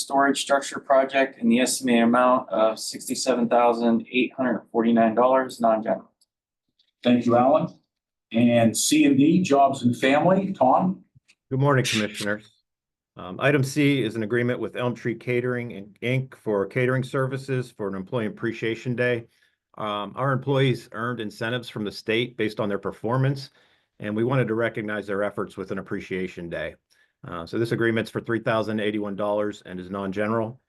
storage structure project in the estimated amount of sixty-seven thousand eight hundred forty-nine dollars, non-general. Thank you, Alan. And C and D, Jobs and Family, Tom? Good morning, Commissioners. Um, item C is an agreement with Elm Tree Catering and Inc. for catering services for an Employee Appreciation Day. Um, our employees earned incentives from the state based on their performance, and we wanted to recognize their efforts with an appreciation day. Uh, so this agreement's for three thousand eighty-one dollars and is non-general.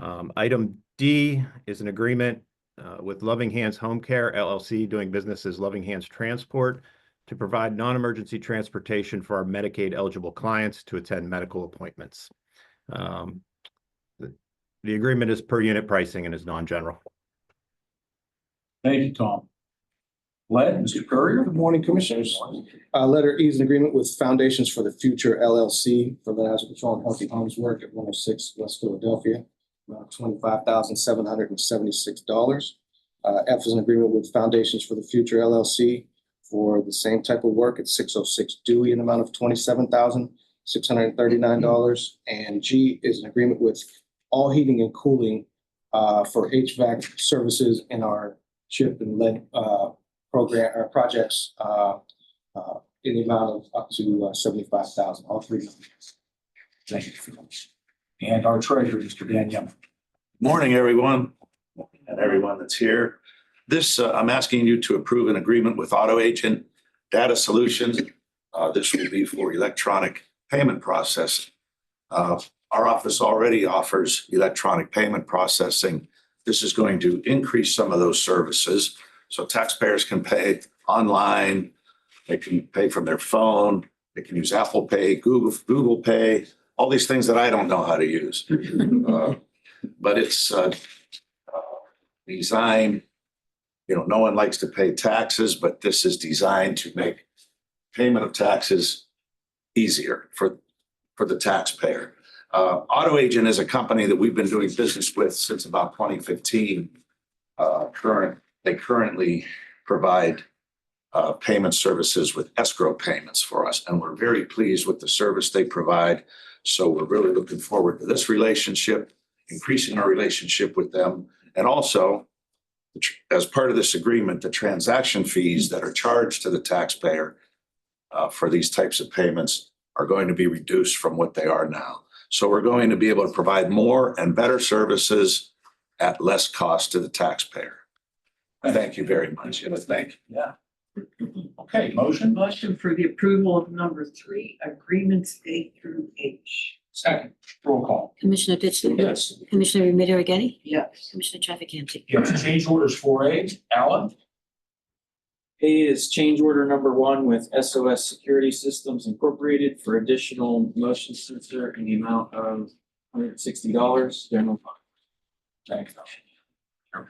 Um, item D is an agreement, uh, with Loving Hands Home Care LLC doing business as Loving Hands Transport to provide non-emergency transportation for our Medicaid eligible clients to attend medical appointments. Um, The the agreement is per unit pricing and is non-general. Thank you, Tom. Led, Mr. Courier? Good morning, Commissioners. Uh, letter E is an agreement with Foundations for the Future LLC for the Hazard Control and Healthy Homes Work at one oh six West Philadelphia. About twenty-five thousand seven hundred and seventy-six dollars. Uh, F is an agreement with Foundations for the Future LLC for the same type of work at six oh six Dewey in the amount of twenty-seven thousand six hundred and thirty-nine dollars. And G is an agreement with All Heating and Cooling uh, for HVAC services in our chip and lead uh, program, or projects uh, uh, in the amount of up to uh, seventy-five thousand, all three. numbers. Thank you. for those. And our treasurer, Mr. Dan Yum. Morning, everyone, and everyone that's here. This, uh, I'm asking you to approve an agreement with Auto Agent Data Solutions. Uh, This will be for electronic payment processing. Uh, Our office already offers electronic payment processing. This is going to increase some of those services. So taxpayers can pay online, they can pay from their phone, they can use Apple Pay, Google, Google Pay, all these things that I don't know how to use. Uh, but it's uh, uh, designed, you know, no one likes to pay taxes, but this is designed to make payment of taxes easier for, for the taxpayer. Uh, Auto Agent is a company that we've been doing business with since about 2015. Uh, Current, they currently provide uh, payment services with escrow payments for us, and we're very pleased with the service they provide. So we're really looking forward to this relationship increasing our relationship with them. And also, the tr- as part of this agreement, the transaction fees that are charged to the taxpayer uh, for these types of payments are going to be reduced from what they are now. So we're going to be able to provide more and better services at less cost to the taxpayer. Thank you very much. And thank you. Yeah. Okay, motion? Motion for the approval of number three, agreements A through H. Second. Roll call. Commissioner Ditzler? Yes. Commissioner Remedy Agati? Yes. Commissioner Trafficante? Yes, change orders four A, Alan? A is change order number one with SOS Security Systems Incorporated for additional motion sensor in the amount of hundred sixty dollars, general fund. Thank you.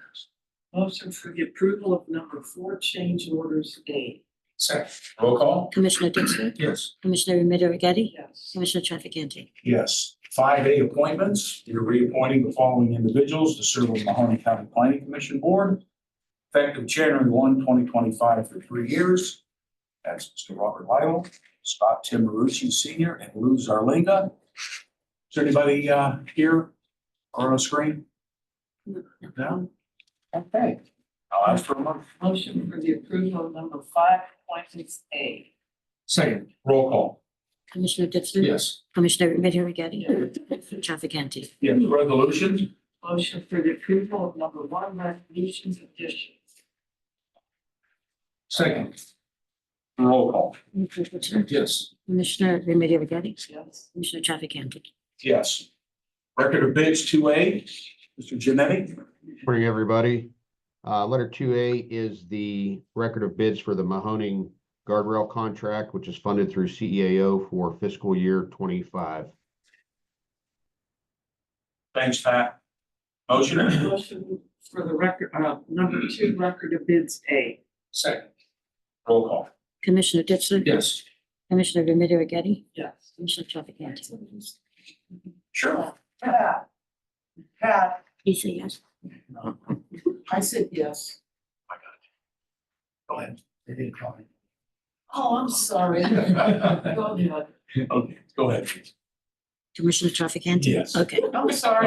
Motion for the approval of number four, change orders A. Second. Roll call? Commissioner Ditzler? Yes. Commissioner Remedy Agati? Yes. Commissioner Trafficante? Yes. Five A appointments, you're reappointing the following individuals to serve on the Mahoney County Planning Commission Board. Effective January 1, 2025, for three years. That's Mr. Robert Lidle, Scott Tim Marucci Senior, and Lou Zarlinga. Is there anybody, uh, here or on the screen? No? Okay. I'll ask for a moment. Motion for the approval of number five, appointments A. Second, roll call. Commissioner Ditzler? Commissioner Remedy Agati? Commissioner Trafficante? Yes, resolution? Motion for the approval of number one, resolutions additions. Second. Roll call. Commissioner Ditzler? Yes. Commissioner Remedy Agati? Yes. Commissioner Trafficante? Yes. Record of bids two A, Mr. Janetti? Morning, everybody. Uh, letter two A is the record of bids for the Mahoning guardrail contract, which is funded through CEAO for fiscal year twenty-five. Thanks, Pat. Motion? Motion for the record, uh, number two, record of bids A. Second. Roll call. Commissioner Ditzler? Yes. Commissioner Remedy Agati? Yes. Commissioner Trafficante? Sure. Pat. Pat, He say yes. I said yes. Go ahead. They didn't call me. Oh, I'm sorry. Go ahead. Okay, go ahead. please. Commissioner Trafficant? Yes. Okay. I'm sorry.